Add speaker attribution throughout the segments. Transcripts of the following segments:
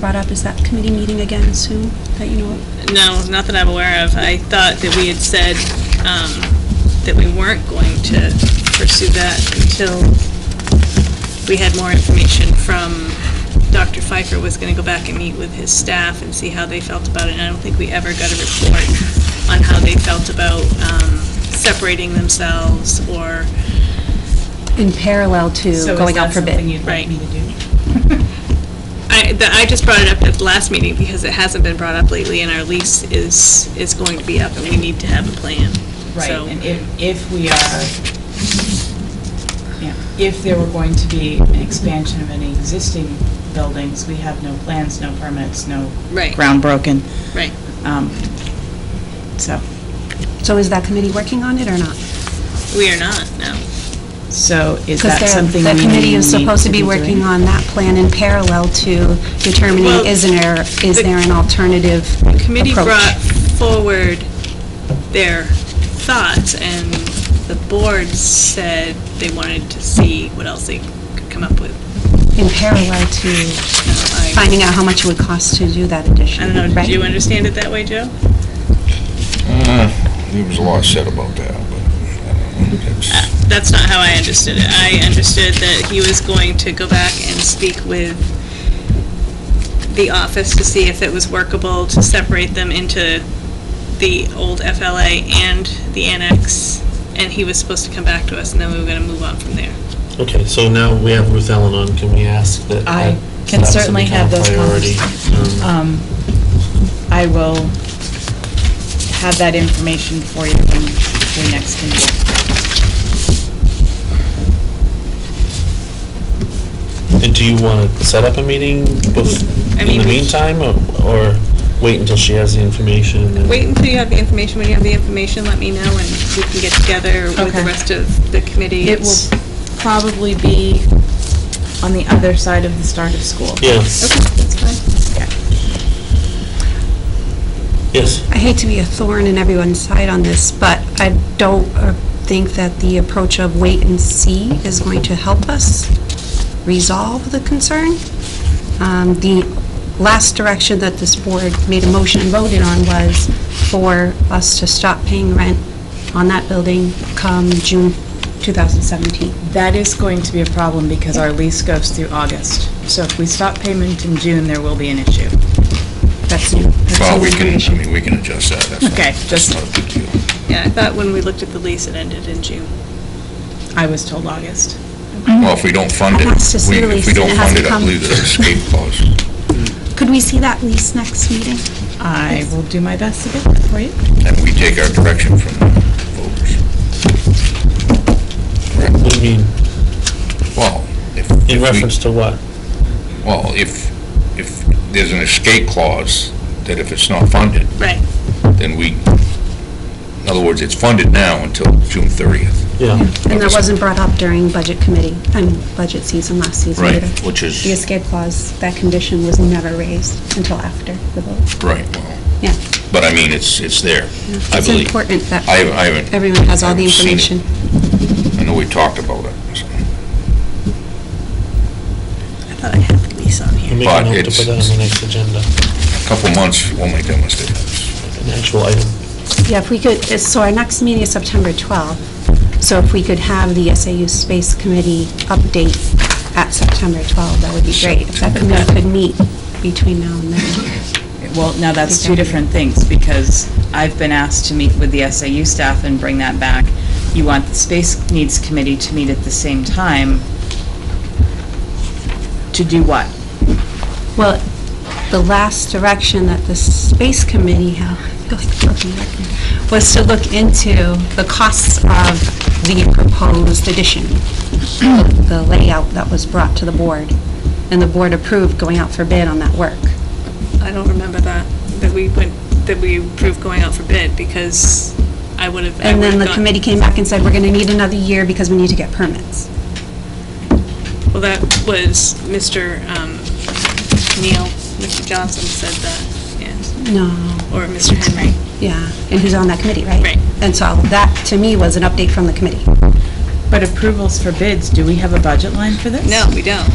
Speaker 1: brought up, is that committee meeting again soon, that you know of?
Speaker 2: No, not that I'm aware of. I thought that we had said um, that we weren't going to pursue that until we had more information from, Dr. Pfeiffer was going to go back and meet with his staff and see how they felt about it, and I don't think we ever got a report on how they felt about um, separating themselves or,
Speaker 3: in parallel to going out for
Speaker 4: So is that something
Speaker 3: bid.
Speaker 4: you'd like me to do?
Speaker 2: I, th- I just brought it up at the last meeting because it hasn't been brought up lately, and our lease is, is going to be up, and we need to have a plan.
Speaker 4: Right,
Speaker 2: So-
Speaker 4: and if, if we are, yeah, if there were going to be an expansion of any existing buildings, we have no plans, no permits, no
Speaker 2: Right.
Speaker 4: ground broken.
Speaker 2: Right.
Speaker 4: Um, So,
Speaker 1: So is that committee working on it or not?
Speaker 2: We are not, no.
Speaker 4: so is
Speaker 1: Because
Speaker 4: that something
Speaker 1: The
Speaker 4: we
Speaker 1: committee is
Speaker 4: need
Speaker 1: supposed to be
Speaker 4: doing?
Speaker 1: working on that plan in parallel to
Speaker 2: Well,
Speaker 1: determining, is there, is
Speaker 2: the-
Speaker 1: there an alternative
Speaker 2: The committee
Speaker 1: approach?
Speaker 2: brought forward their thoughts, and the board said they wanted to see what else they could come up with.
Speaker 1: In parallel to
Speaker 2: So I
Speaker 1: finding out how much it would cost to do that
Speaker 2: I
Speaker 1: addition,
Speaker 2: don't know,
Speaker 1: right?
Speaker 2: did you understand it that way, Joe?
Speaker 5: There was a lot said about that, but
Speaker 2: Uh,
Speaker 5: it's,
Speaker 2: That's not how I understood it. I understood that he was going to go back and speak with the office to see if it was workable to separate them into the old FLA and the annex, and he was supposed to come back to us, and then we were going to move on from there.
Speaker 6: Okay, so now we have Ruth Ellen on, can we ask that?
Speaker 4: I
Speaker 6: that
Speaker 4: can
Speaker 6: that's
Speaker 4: certainly
Speaker 6: become a
Speaker 4: have those
Speaker 6: priority? Um,
Speaker 4: Um, I will have that information for you when the next committee. Um,
Speaker 6: And do you want to set up a meeting bef-
Speaker 2: I
Speaker 6: in
Speaker 2: mean,
Speaker 6: the
Speaker 2: we-
Speaker 6: meantime, or or wait until she has the information? and then-
Speaker 2: Wait until you have the information. When you have the information, let me know, and we can get together with the
Speaker 4: Okay.
Speaker 2: rest of the committee.
Speaker 4: It will probably be on the other side of the start of school.
Speaker 6: Yes,
Speaker 2: Okay, that's fine.
Speaker 6: yes.
Speaker 1: I hate to be a thorn in everyone's side on this, but I don't uh, think that the approach of wait and see is going to help us resolve the concern. Um, The last direction that this board made a motion and voted on was for us to stop paying rent on that building come June 2017.
Speaker 4: That is going to be a problem because our lease goes through August. So if we stop payment in June, there will be an issue.
Speaker 1: That's new.
Speaker 5: well, we can, I mean, we can adjust that, that's not,
Speaker 4: Okay,
Speaker 5: that's
Speaker 4: just-
Speaker 5: not a big deal.
Speaker 2: Yeah, I thought when we looked at the lease, it ended in June.
Speaker 4: I was told August.
Speaker 5: Well, if we don't fund it,
Speaker 1: It has to
Speaker 5: we-
Speaker 1: see the
Speaker 5: if
Speaker 1: lease,
Speaker 5: we
Speaker 1: and
Speaker 5: don't
Speaker 1: it has
Speaker 5: fund
Speaker 1: to
Speaker 5: it, I
Speaker 1: come.
Speaker 5: believe there's escape clause.
Speaker 1: Could we see that lease next meeting?
Speaker 4: I will do my best to get that for you.
Speaker 5: And we take our direction from the voters. Correct.
Speaker 6: What do you mean,
Speaker 5: Well, if. if
Speaker 6: in
Speaker 5: we-
Speaker 6: reference to what?
Speaker 5: Well, if, if there's an escape clause, that if it's not funded,
Speaker 2: Right.
Speaker 5: then we, in other words, it's funded now until June 30th.
Speaker 6: Yeah,
Speaker 1: And that wasn't brought up during budget committee, I mean, budget season last season either.
Speaker 5: Which
Speaker 1: The
Speaker 5: is,
Speaker 1: escape clause, that condition was never raised until after the vote.
Speaker 5: right, well,
Speaker 1: Yeah.
Speaker 5: but I mean, it's, it's there, I believe.
Speaker 1: It's important
Speaker 5: I
Speaker 1: that
Speaker 5: haven't, I haven't.
Speaker 1: everyone has all the
Speaker 5: haven't seen it.
Speaker 1: information.
Speaker 5: I know we talked about it. so.
Speaker 2: I thought I had the lease on
Speaker 6: I'll
Speaker 2: here.
Speaker 6: make
Speaker 5: But
Speaker 6: a note to
Speaker 5: it's-
Speaker 6: put that on the next agenda,
Speaker 5: A Couple months, we'll make that mistake.
Speaker 6: an actual item.
Speaker 1: Yeah, if we could, so our next meeting is September 12th, so if we could have the SAU Space Committee update at September 12th, that would be great. If that committee could meet between now and then.
Speaker 4: Well, now that's two different things because I've been asked to meet with the SAU staff and bring that back. You want the Space Needs Committee to meet at the same time to do what?
Speaker 1: Well, the last direction that the Space Committee, held- I feel like a broken record, was to look into the costs of the proposed addition, the layout that was brought to the board, and the board approved going out for bid on that work.
Speaker 2: I don't remember that, that we went, that we approved going out for bid, because I would have.
Speaker 1: And then the committee came back and said, we're going to need another year because we need to get permits.
Speaker 2: Well, that was Mr. um, Neil, Mr. Johnson said that, yes,
Speaker 1: No,
Speaker 2: or Mr. Henry.
Speaker 1: yeah, and who's on that committee, right?
Speaker 2: Right.
Speaker 1: And so that, to me, was an update from the committee.
Speaker 4: But approvals for bids, do we have a budget line for this?
Speaker 2: No, we don't.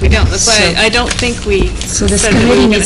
Speaker 2: We don't, that's why
Speaker 1: So-
Speaker 2: I I don't think we
Speaker 1: So this
Speaker 2: said that we were
Speaker 1: committee
Speaker 2: gonna
Speaker 1: needs